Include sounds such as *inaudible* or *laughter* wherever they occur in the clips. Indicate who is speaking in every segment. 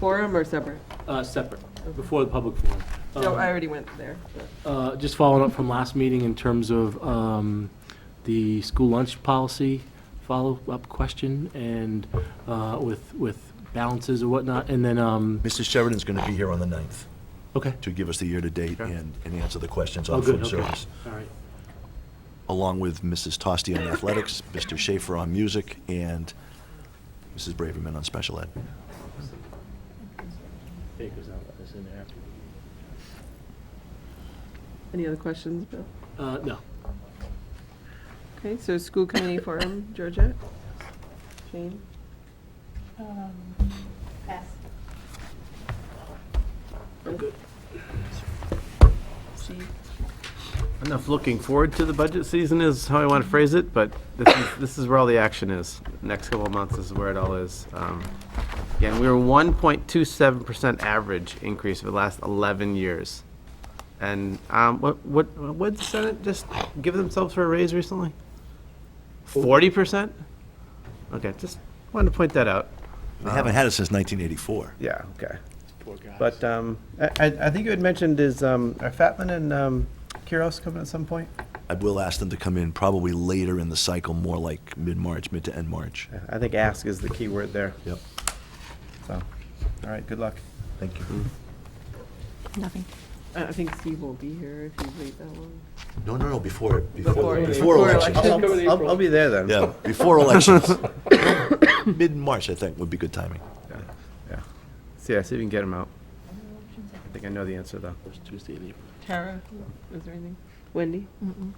Speaker 1: forum or separate?
Speaker 2: Uh, separate, before the public forum.
Speaker 1: No,
Speaker 2: Um,
Speaker 3: Uh-huh.
Speaker 1: I already went there. but-
Speaker 2: Uh, Just following up from last meeting in terms of um, the school lunch policy follow-up question and uh, with, with balances and whatnot, and then, um,
Speaker 3: Mr. Sheridan's going to be here on the 9th
Speaker 2: okay.
Speaker 3: to give us the year-to-date
Speaker 2: Okay.
Speaker 3: and, and answer the questions
Speaker 2: Oh,
Speaker 3: on
Speaker 2: good,
Speaker 3: food
Speaker 2: okay.
Speaker 3: service.
Speaker 2: All right.
Speaker 3: Along with Mrs. Tosti on athletics, Mr. Schaefer on music, and Mrs. Braverman on special ed.
Speaker 2: Okay, 'cause I'll put this in there.
Speaker 1: Any other questions, Bill?
Speaker 2: Uh, No.
Speaker 1: Okay, so school *coughs* committee forum, Georgette? Jane?
Speaker 4: Um, pass.
Speaker 1: Steve?
Speaker 5: Enough looking forward to the budget season is how I want to phrase it, but this is, this is where all the action is. Next couple of months is where it all is. Um, Again, we were one point two seven percent average increase for the last eleven years. And, um, what, what, what the Senate just give themselves for a raise recently? Forty percent? Okay, just wanted to point that out.
Speaker 3: They haven't had it since 1984.
Speaker 5: Yeah, okay.
Speaker 2: Poor guys.
Speaker 5: But, um, I, I, I think you had mentioned is, um, are Fatman and, um, Kuros coming at some point?
Speaker 3: I will ask them to come in probably later in the cycle, more like mid-March, mid to end March.
Speaker 5: I think ask is the key word there.
Speaker 3: Yep.
Speaker 5: So, all right, good luck.
Speaker 3: Thank you.
Speaker 2: Mm-hmm.
Speaker 6: Nothing.
Speaker 1: I I think Steve won't be here if you wait that long.
Speaker 3: No, no, no, before, before,
Speaker 1: Before-
Speaker 3: before
Speaker 1: before
Speaker 3: elections.
Speaker 1: election.
Speaker 5: I'll, I'll- I'll be there then.
Speaker 3: Yeah, before elections. *coughs* Mid-March, I think, would be good timing.
Speaker 5: Yeah. See, I see if we can get him out.
Speaker 4: Options
Speaker 5: I think I know the answer though.
Speaker 2: It's Tuesday in April.
Speaker 1: Tara, is there anything? Wendy? And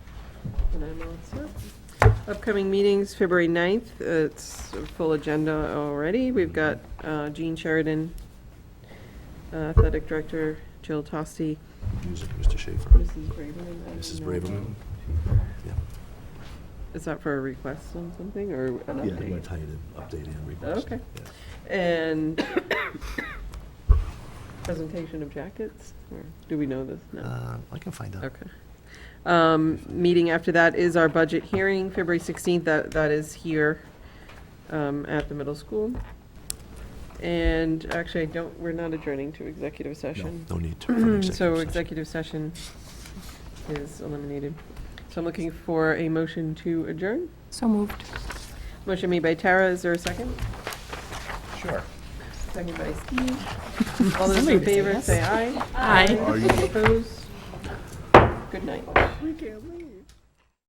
Speaker 1: I'm all set. Upcoming meetings, February 9th, uh, it's a full agenda already. We've got uh, Jean Sheridan, uh, Athletic Director, Jill Tosti,
Speaker 3: Music, Mr. Schaefer,
Speaker 1: Mrs. Braverman. I don't
Speaker 3: Mrs.
Speaker 1: know.
Speaker 3: Braverman.
Speaker 1: Is that for a request on something or an
Speaker 3: Yeah, I'm going
Speaker 1: update?
Speaker 3: to tell you to update and request.
Speaker 1: Okay.
Speaker 3: Yeah.
Speaker 1: And *coughs* presentation of jackets, or do we know this? No.
Speaker 3: Uh, I can find out.
Speaker 1: Okay. Um, Meeting after that is our budget hearing, February 16th. That That is here um, at the middle school. And actually, I don't, we're not adjourning to executive
Speaker 3: No,
Speaker 1: session. *clears throat*
Speaker 3: no need to. for an
Speaker 1: So
Speaker 3: session.
Speaker 1: executive session is eliminated. So I'm looking for a motion to adjourn.
Speaker 6: So moved.
Speaker 1: Motion made by Tara, is there a second?
Speaker 5: Sure.
Speaker 1: Second by Steve. All those in favor, say aye.
Speaker 6: Aye.
Speaker 1: Opposed? Good night.
Speaker 5: We can't leave.